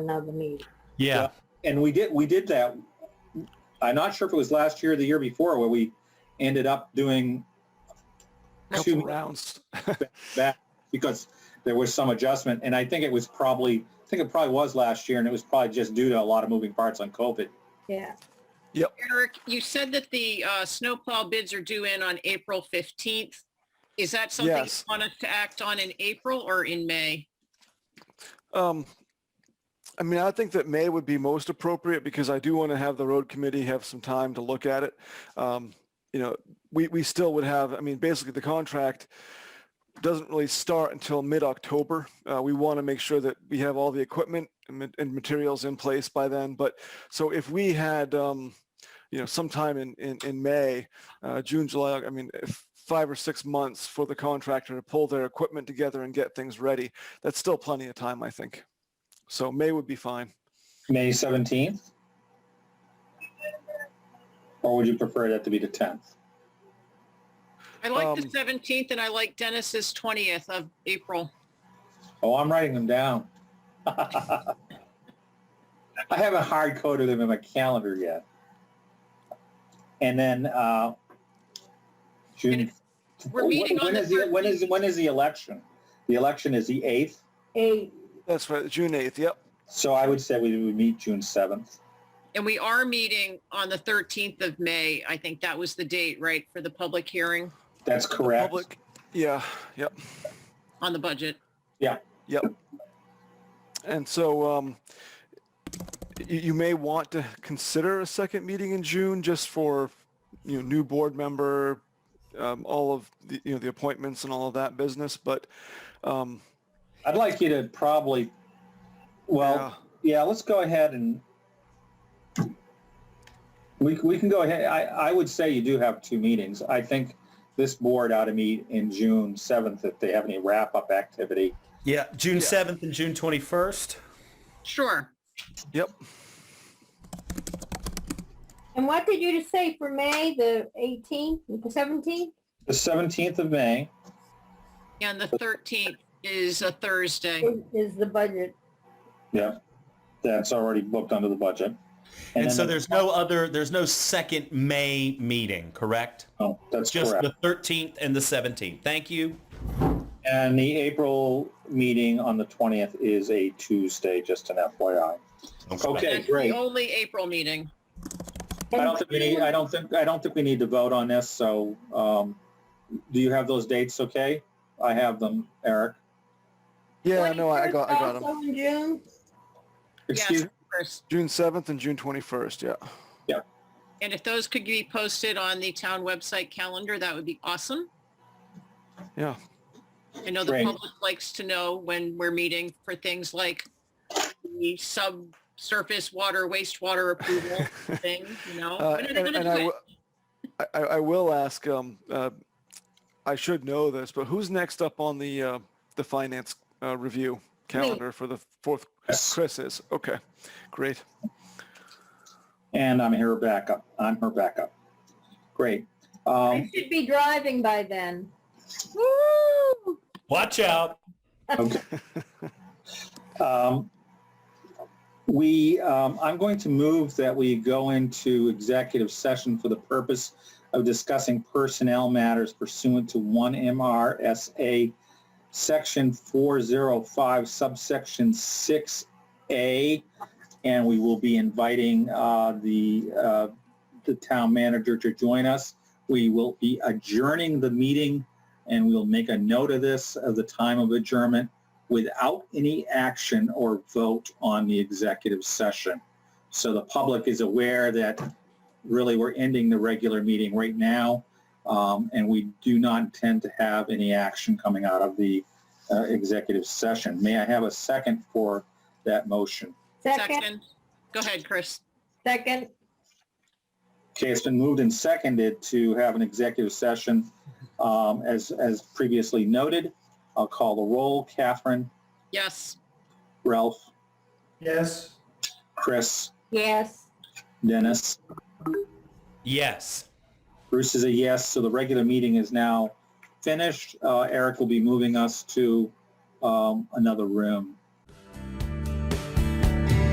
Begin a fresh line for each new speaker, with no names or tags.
another meeting.
Yeah.
And we did, we did that. I'm not sure if it was last year or the year before where we ended up doing
Couple
two
rounds.
back because there was some adjustment. And I think it was probably, I think it probably was last year and it was probably just due to a lot of moving parts on COVID.
Yeah,
Eric, you said that the uh, snowplow bids are due in on April 15th. Is that something you
Yes.
want us to act on in April or in May?
Um, I mean, I think that May would be most appropriate because I do want to have the road committee have some time to look at it. Um, you know, we, we still would have, I mean, basically the contract doesn't really start until mid-October. Uh, we want to make sure that we have all the equipment and, ma- and materials in place by then. But so if we had, um, you know, sometime in, in, in May, uh, June, July, I mean, if five or six months for the contractor to pull their equipment together and get things ready that's still plenty of time, I think. So May would be fine.
May 17th? Or would you prefer that to be the 10th?
I like the
Um,
17th and I like Dennis's 20th of April.
Oh, I'm writing them down. I haven't hard coded them in my calendar yet. And then, uh, June.
we're meeting on
Oh, When
the
is the, when is, when is the election? The election is the 8th,
eight,
That's right, June 8th, yep.
so I would say we would meet June 7th.
And we are meeting on the 13th of May. I think that was the date, right, for the public hearing
That's correct.
Public, yeah, yep,
on the budget?
yep. And so um, you, you may want to consider a second meeting in June just for, you know, new board member, um, all of the, you know, the appointments and all of that business, but um,
I'd like you to probably, well,
yeah,
Yeah, let's go ahead and we, we can go ahead. I, I would say you do have two meetings. I think this board ought to meet in June 7th if they have any wrap-up activity.
Yeah, June
Yeah.
7th and June 21st.
Sure.
yep,
and what did you just say for May, the eighteenth, the seventeenth?
The 17th of May,
And the 13th is a Thursday.
Is the budget,
yeah, that's already booked under the budget.
And,
then
so
the-
there's no other, there's no second May meeting, correct?
oh, That's
Just
correct.
the 13th and the 17th. Thank you.
And the April meeting on the 20th is a Tuesday, just an FYI. Okay,
That's
great.
The only April meeting.
I don't think we need, I don't think, I don't think we need to vote on this, so, um, do you have those dates okay? I have them, Eric.
yeah, no, I I got, I got
21st
them.
also in June,
Excuse,
Yes, Chris.
June 7th and June 21st, yeah.
And if those could be posted on the town website calendar, that would be awesome.
Yeah.
I know the
Great.
public likes to know when we're meeting for things like the subsurface water, wastewater approval thing, you know?
Uh,
When are they
and,
gonna
and
do
I, w-
it?
I- I, I will ask. Um, uh, I should know this, but who's next up on the uh, the finance uh, review calendar for the fourth?
Yes.
Chris is okay. Great.
and I'm her backup, I'm her backup. Great.
I
Um,
should be driving by then.
Woo!
Watch out.
okay. Um, we, um, I'm going to move that we go into executive session for the purpose of discussing personnel matters pursuant to one MRSA section four zero five subsection six A. And we will be inviting, uh, the, uh, the town manager to join us. We will be adjourning the meeting and we'll make a note of this of the time of adjournment without any action or vote on the executive session. So the public is aware that really we're ending the regular meeting right now, um, and we do not intend to have any action coming out of the uh, executive session. May I have a second for that motion?
Second,
Second. Go ahead, Chris.
second,
Okay, it's been moved and seconded to have an executive session um, as, as previously noted. I'll call the roll. Catherine,
Yes.
Ralph,
Yes.
Chris,
yes.
Dennis.
Yes.
Bruce is a yes, so the regular meeting is now finished. Uh, Eric will be moving us to um, another room.